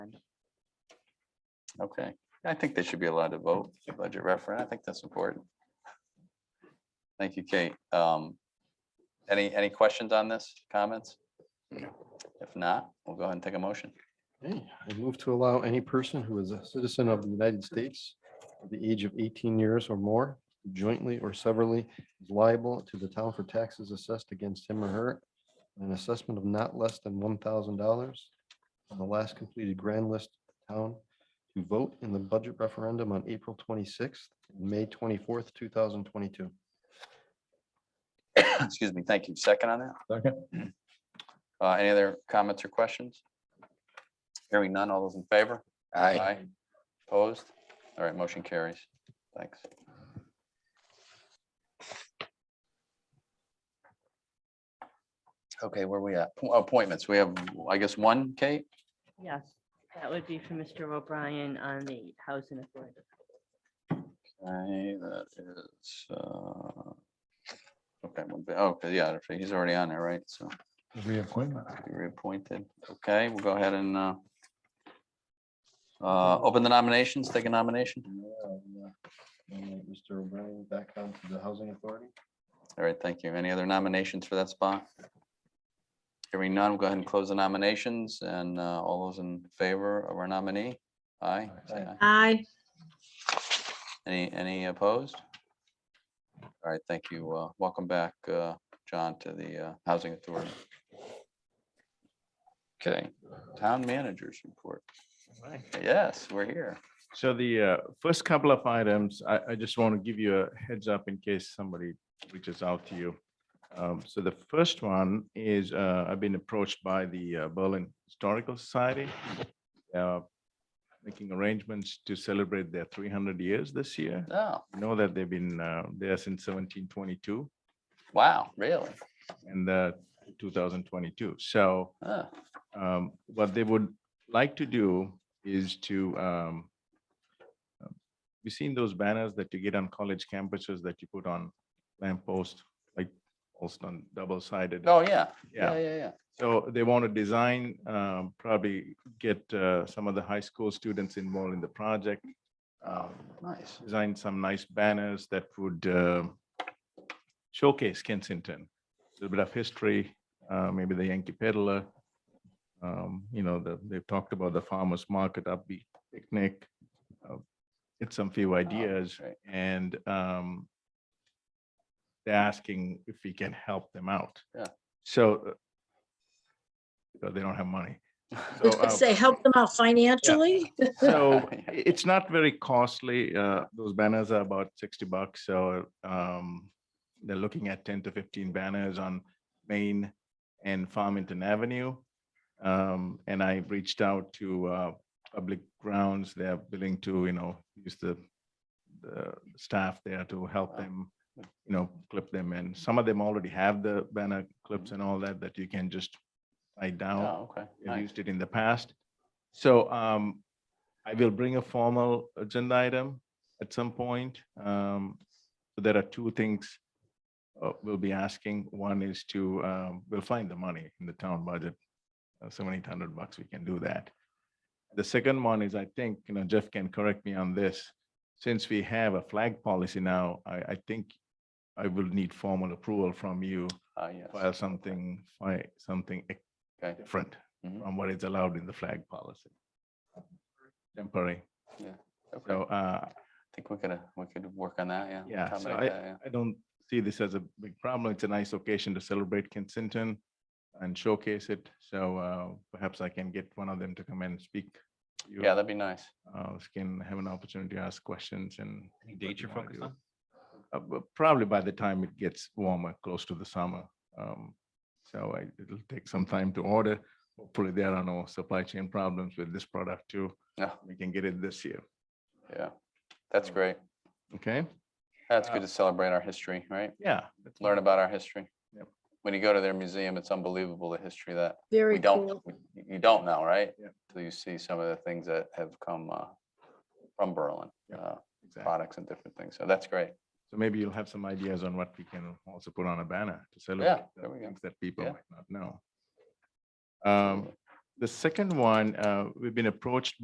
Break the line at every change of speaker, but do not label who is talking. Okay, I think they should be allowed to vote, the budget referendum. I think that's important. Thank you, Kate. Um, Any, any questions on this, comments? If not, we'll go ahead and take a motion.
Okay, I move to allow any person who is a citizen of the United States of the age of eighteen years or more who jointly or severally is liable to the town for taxes assessed against him or her and an assessment of not less than one thousand dollars on the last completed grand list of town to vote in the budget referendum on April twenty-sixth, May twenty-fourth, two thousand twenty-two.
Excuse me, thank you. Second on that?
Second.
Uh, Any other comments or questions? Hearing none, all those in favor?
Aye.
Opposed? All right, motion carries. Thanks. Okay, where we at? oh, Appointments. We have, I guess, one, Kate?
Yes, that would be for Mr. O'Brien on the housing authority.
Okay, that is, uh, okay, one bit- oh, 'cause, yeah, he's already on there, right? So
Reappointment.
be reappointed. Okay, we'll go ahead and uh, uh, open the nominations, take a nomination.
Mr. O'Brien back onto the housing authority.
All right, thank you. Any other nominations for that spot? Hearing none, we'll go ahead and close the nominations and uh, all those in favor of our nominee? Aye. say aye.
Aye.
Any, any opposed? All right, thank you. Uh, Welcome back, uh, John, to the uh, Housing Authority. Okay, Town Managers Report. Yes, we're here.
So the uh, first couple of items, I, I just want to give you a heads up in case somebody reaches out to you. Um, So the first one is, uh, I've been approached by the uh, Berlin Historical Society, uh, making arrangements to celebrate their 300 years this year.
Oh,
You Know that they've been uh, there since 1722
wow, really?
and uh, 2022. So
Huh.
um, what they would like to do is to, um, um, you've seen those banners that you get on college campuses that you put on lamppost, like also on double sided.
Oh, yeah.
Yeah.
Yeah, yeah, yeah.
So they want to design, um, probably get, uh, some of the high school students involved in the project. um,
Nice.
Design some nice banners that would, uh, showcase Kensington, a little bit of history, uh, maybe the Yankee Peddler. Um, you know, the, they've talked about the farmer's market, upbeat picnic. uh, Get some few ideas
great.
and, um, they're asking if we can help them out.
Yeah.
So uh, because they don't have money. So,
Let's
uh,
Say, help them out financially?
So i- it's not very costly. Uh, those banners are about sixty bucks, so, um, they're looking at ten to fifteen banners on Main and Farmington Avenue. Um, and I reached out to, uh, public grounds. They're willing to, you know, use the, the staff there to help
Wow.
them, you know, clip them. And some of them already have the banner clips and all that, that you can just tie down
Oh, okay.
have
nice.
used it in the past. So um, I will bring a formal agenda item at some point. Um, so There are two things uh, we'll be asking. One is to, um, we'll find the money in the town budget, uh, seven, eight hundred bucks, we can do that. The second one is, I think, you know, Jeff can correct me on this. Since we have a flag policy now, I, I think I will need formal approval from you,
Ah, yes.
file something, fi- something
Okay.
different
Mhm.
from what is allowed in the flag policy. Temporary.
Okay.
So uh,
I think we could, uh, we could work on that, yeah.
Yeah, so
accommodate that, yeah.
I don't see this as a big problem. It's a nice occasion to celebrate Kensington and showcase it. So uh, perhaps I can get one of them to come and speak. to you.
Yeah, that'd be nice.
Uh, so Can have an opportunity to ask questions and.
Any
what
dates
you
you're
wanna
focused
do.
on?
Uh, but Probably by the time it gets warmer, close to the summer. Um, So I- it'll take some time to order. Hopefully there are no supply chain problems with this product too.
Yeah.
We can get it this year.
Yeah. That's
So-
great.
Okay?
That's good
Uh,
to celebrate our history, right?
Yeah. that's
Learn about our history.
Yep.
When you go to their museum, it's unbelievable, the history that we
Very
don't,
cool.
we- you don't know, right?
Yep.
Till you see some of the things that have come uh, from Berlin,
Yep,
uh,
exactly.
products and different things. So that's great.
So maybe you'll have some ideas on what we can also put on a banner to celebrate
Yeah,
the
there we go.
things that people
Yeah.
might not know. Um, The second one, uh, we've been approached